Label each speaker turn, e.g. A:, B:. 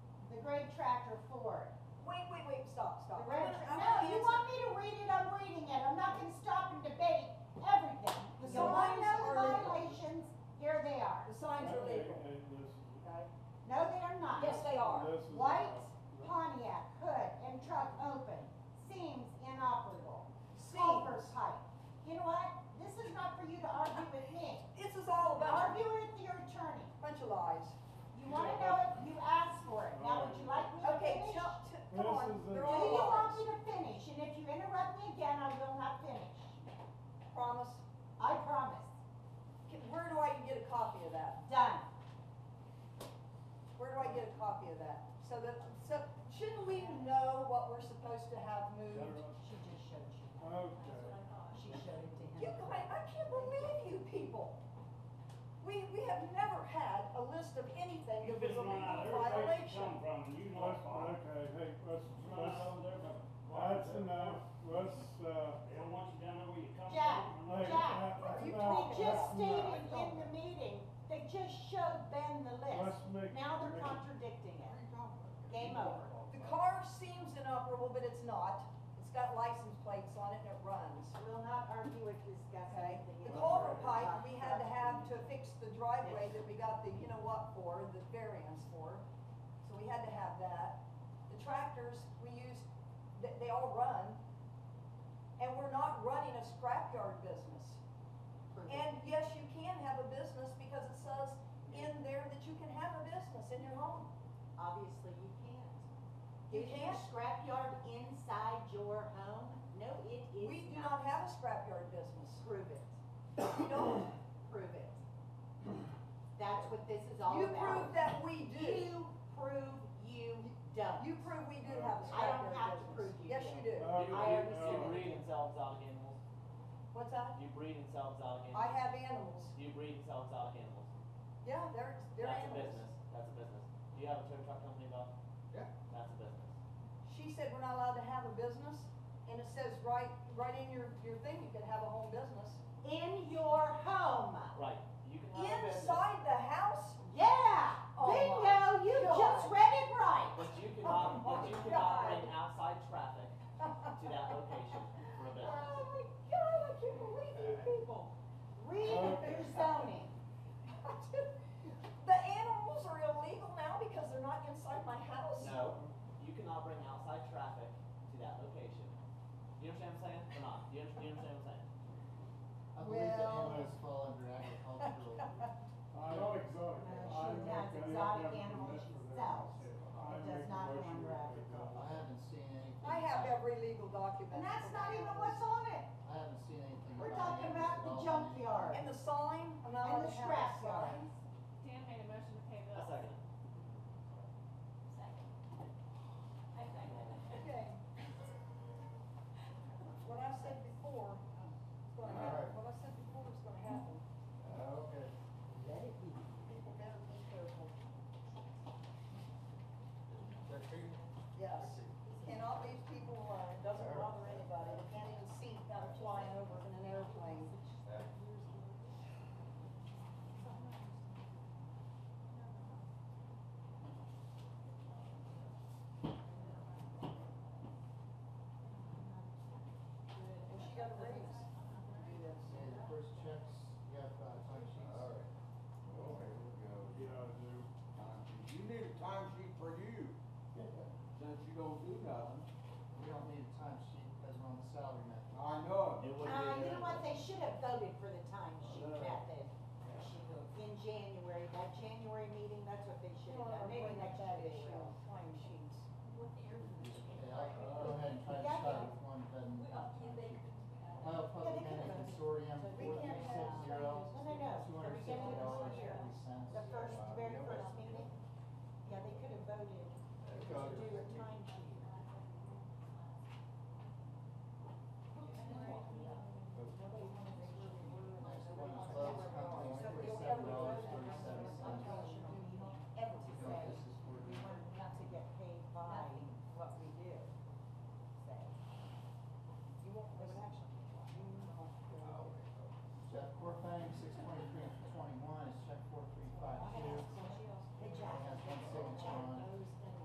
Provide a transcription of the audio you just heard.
A: this was.
B: White
A: uh,
B: Pontiac hood and truck open, seams inoperable,
C: See,
B: culvert pipe. You know what? This is not for you to argue with me.
C: this is all about
B: Argue with your attorney.
C: a bunch of lies.
B: You wanna know it, you asked for it. Now, would you like me to
C: Okay,
B: finish?
C: tell- t-
A: This
C: come on,
A: is a-
C: they're
B: Do you
C: all
B: want me
C: lies.
B: to finish? And if you interrupt me again, I will not finish.
C: Promise.
B: I promise.
C: Can- Where do I get a copy of that?
B: Done.
C: Where do I get a copy of that? So that, so shouldn't we know what we're supposed to have moved?
B: She just showed you.
A: Okay.
B: She showed it to him.
C: You guys, I can't believe you people. We, we have never had a list of anything that was a legal violation.
A: Let's, okay, hey, let's, let's, that's enough, let's, uh,
D: They don't want you down there where you come
B: Jack,
D: from.
A: hey,
B: Jack,
A: that- that's
C: you
A: enough,
B: They
C: talking
A: that's
B: just
C: about?
A: enough.
B: stated in the meeting, they just showed Ben the
A: Let's
B: list.
A: make.
B: Now they're
A: make-
B: contradicting it. Game over.
C: The car seems inoperable, but it's not. It's got license plates on it and it runs.
B: I will not argue or discuss
C: Okay,
B: anything.
C: the
B: else.
C: culvert pipe, we had to have to fix the driveway that we got the, you know what for, the variance for, so we had to have that. The tractors, we used, they, they all run, and we're not running a scrapyard business. And yes, you can have a business because it says in there that you can have a business in your home.
B: Obviously, you can't.
C: You
B: Is your
C: can't,
B: scrapyard inside your home? No, it is not.
C: we do not have a scrapyard business,
B: Prove it,
C: we don't.
B: prove it. That's what this is all
C: You
B: about.
C: prove that we do.
B: You prove you don't.
C: You prove we do have a
B: I don't
C: scrapyard business.
B: have to prove you
C: Yes,
B: do.
C: you do.
A: Okay,
B: I already said it.
A: all right.
E: breed themselves out of animals.
C: What's that?
E: You breed themselves out of
C: I
E: animals.
C: have animals.
E: You breed themselves out of animals.
C: Yeah, they're, they're
E: That's a
C: animals.
E: business. That's a business. Do you have a tow truck company, Bob?
F: Yeah.
E: That's a business.
C: She said we're not allowed to have a business, and it says right, right in your, your thing, you can have a home business.
B: In your home.
E: Right. You can have a business.
C: Inside the house?
B: Yeah,
C: Oh my
B: bingo, you
C: God.
B: just read it right.
E: But you
C: Oh
E: cannot,
C: my
E: but you cannot bring
C: God.
E: outside traffic to that location for a
C: Oh
E: business.
C: my God, I can't believe you people.
B: Read
F: Oh.
B: your zoning.
C: The animals are illegal now because they're not inside my house?
E: No, you cannot bring outside traffic to that location. You understand what I'm saying or not? You understand, you understand what I'm saying?
F: I believe that
C: Well-
F: animals fall under agricultural.
A: I know
B: No,
A: exotic. I
B: Uh, she
A: make
B: has
A: that
B: exotic
A: definition
B: animals
A: for that.
B: herself.
A: I
B: It does
A: make a
B: not go
A: motion
B: under
A: we take
B: agriculture.
F: I haven't seen anything.
C: I have every legal document.
B: And that's not even what's on it.
F: I haven't seen anything.
B: We're
F: about
B: talking about
F: animals at
B: the
F: all.
B: junkyard
C: And the sign, I'm not
B: and
C: allowed
B: the
C: to have a
B: scrap yard.
C: sign.
G: Dan made a motion to pay
E: A
G: bills.
E: second.
G: Second. I second.
C: Okay. What I said before, is gonna happen, what I said before is gonna happen.
F: Oh, Okay.
C: People better be careful. Yes, cannot leave people alone, It doesn't bother anybody, you can't even see them flying over in an airplane. And she got a raise to do this.
F: Say the first
B: Uh,
C: Um,
F: checks uh, Uh,